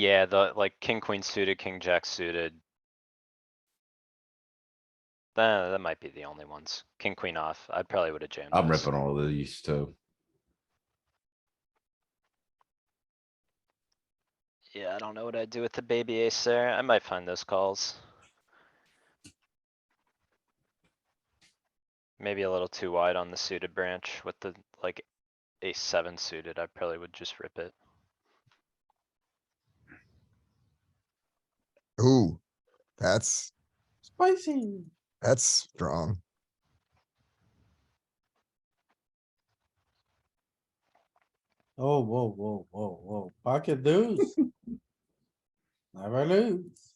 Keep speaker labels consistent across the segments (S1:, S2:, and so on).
S1: Yeah, the like king, queen suited, king, jack suited. That, that might be the only ones. King, queen off. I probably would have jammed.
S2: I'm
S1: those.
S2: ripping all of these too.
S1: Yeah, I don't know what I'd do with the baby ace there. I might find those calls. Maybe a little too wide on the suited branch with the like ace seven suited. I probably would just rip it.
S3: Ooh, that's,
S4: Spicy.
S3: that's strong.
S4: Oh, whoa, whoa, whoa, whoa. Pocket deuce. Never lose.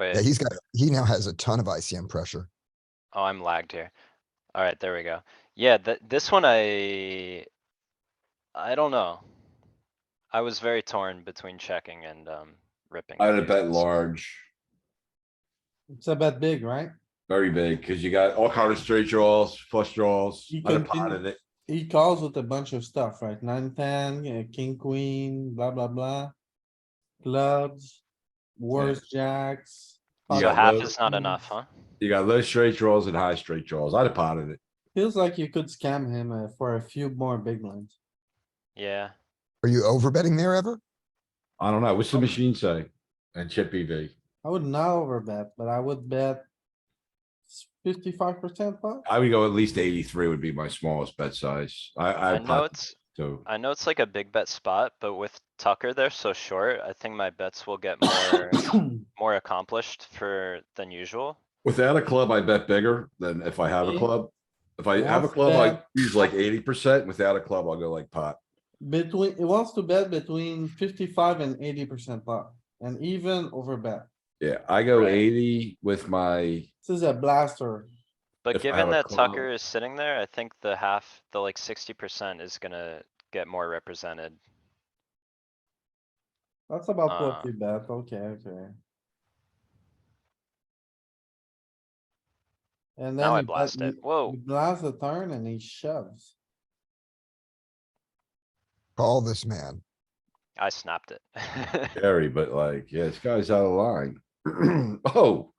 S3: Yeah,
S1: Wait,
S3: he's got, he now has a ton of ICM pressure.
S1: oh, I'm lagged here. Alright, there we go. Yeah, th- this one I. I don't know. I was very torn between checking and um ripping.
S5: I'd
S1: the
S5: have bet
S1: aces.
S5: large,
S4: It's a bet big, right?
S5: very big, cause you got all kind of straight draws, flush draws,
S4: You
S5: I'd have
S4: continue.
S5: potted it.
S4: He calls with a bunch of stuff, right? Nine, ten, yeah, king, queen, blah, blah, blah. Clubs, worse jacks.
S5: You
S1: So
S5: got
S1: half
S5: low-
S1: is not enough, huh?
S5: You got low straight draws and high straight draws, I'd have potted it.
S4: Feels like you could scam him uh, for a few more big ones.
S1: Yeah,
S3: Are you overbetting there ever?
S5: I don't know, what's
S4: Oh.
S5: the machine say? And chip E V.
S4: I would not overbet, but I would bet fifty-five percent pot.
S5: I would go at least eighty-three would be my smallest bet size. I,
S1: I
S5: I
S1: know
S5: pot,
S1: it's.
S5: so,
S1: I know it's like a big bet spot, but with Tucker there so short, I think my bets will get more, more accomplished for than usual.
S5: without a club, I bet bigger than if I have a
S4: Yeah.
S5: club. If I have a
S4: Half
S5: club, I
S4: bet.
S5: use like eighty percent, without a club, I'll go like pot.
S4: Between, it wants to bet between fifty-five and eighty percent pot, and even overbet.
S5: Yeah, I go
S1: Right.
S5: eighty with my,
S4: This is a blaster.
S1: But
S5: If I
S1: given
S5: have a
S1: that
S5: club-
S1: Tucker is sitting there, I think the half, the like sixty percent is gonna get more represented.
S4: That's about what
S1: Uh.
S4: we bet. Okay, okay. And then.
S1: Now I
S4: you bet-
S1: blast it. Oh. Whoa,
S4: you- you Blast the turn and he shoves.
S3: Call this man.
S1: I snapped it.
S5: Gary, but like, yeah, this guy's out of line. Oh,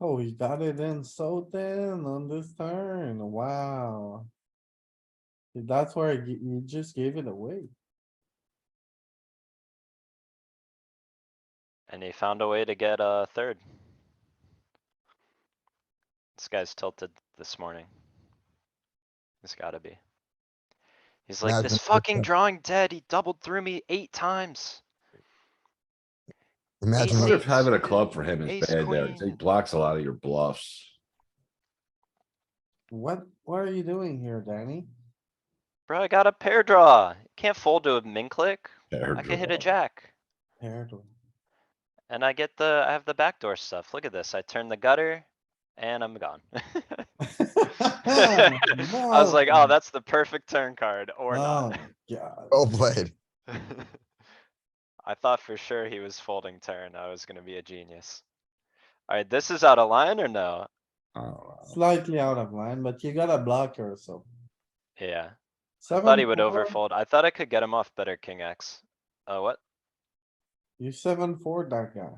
S4: Oh, he got it in so thin on this turn. Wow. That's where you you just gave it away.
S1: And he found a way to get a third. This guy's tilted this morning. He's gotta be. He's like,
S3: Mad
S1: this
S3: Max, what's
S1: fucking
S3: up?"
S1: drawing dead, he doubled through me eight times.
S3: Imagine,
S1: Ace
S5: what
S3: what-
S5: if having a club for him
S1: Ace
S5: is bad there? 'cause He
S1: queen.
S5: blocks a lot of your bluffs.
S4: What, what are you doing here, Danny?
S1: Bro, I got a pair draw. Can't fold to a min click.
S5: Pair
S1: I can hit
S5: draw.
S1: a jack.
S4: Terrible.
S1: And I get the, I have the backdoor stuff. Look at this. I turn the gutter and I'm gone. I was like, oh, that's the perfect turn card or
S5: Oh,
S1: not.
S4: Oh, God.
S3: well played.
S1: I thought for sure he was folding turn. I was gonna be a genius. Alright, this is out of line or no?
S5: I don't know.
S4: Slightly out of line, but you got a blocker, so.
S1: Yeah, I thought he would
S5: Um,
S1: overfold. I thought I could get him off better king X. Uh, what?
S4: You seven, four, that guy.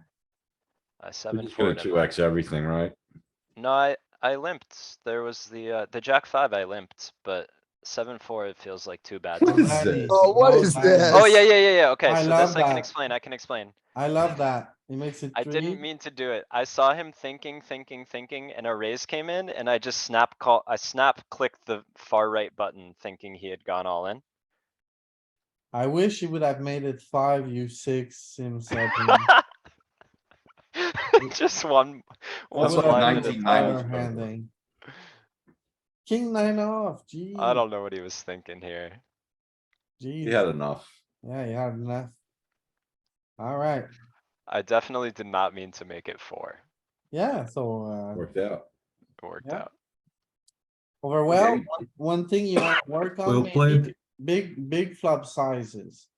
S1: I
S5: We're
S1: seven
S5: just
S1: four.
S5: gonna two X everything, right?
S1: No, I, I limped. There was the, uh, the jack five I limped, but seven four, it feels like too bad.
S5: What is
S4: Daddy,
S5: this?
S3: Oh, what is
S4: daddy.
S3: this?
S1: Oh, yeah, yeah, yeah, yeah. Okay,
S4: I
S1: so
S4: love
S1: this I can
S4: that.
S1: explain. I can explain.
S4: I love that. He makes it
S1: I
S4: three.
S1: didn't mean to do it. I saw him thinking, thinking, thinking, and a raise came in and I just snap call, I snap clicked the far right button thinking he had gone all in.
S4: I wish he would have made it five, you six, him seven.
S1: Just one, one
S4: That's what
S1: line at a time.
S5: 1990s was
S4: Power
S5: better.
S4: handing. King nine off, gee.
S1: I don't know what he was thinking here.
S5: He
S4: Gee,
S5: had enough.
S4: yeah, you have enough. Alright,
S1: I definitely did not mean to make it four.
S4: yeah, so, uh,
S5: Worked out.
S1: It worked
S4: Yeah.
S1: out.
S4: overwhelmed, one thing you wanna work on,
S6: Well played.
S4: maybe big, big flop sizes.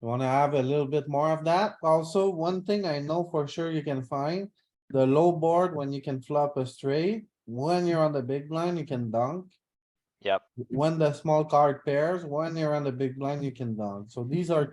S4: You wanna have a little bit more of that? Also, one thing I know for sure you can find, the low board when you can flop a straight, when you're on the big blind, you can dunk.
S1: Yep.
S4: When the small card pairs, when you're on the big blind, you can dunk. So these are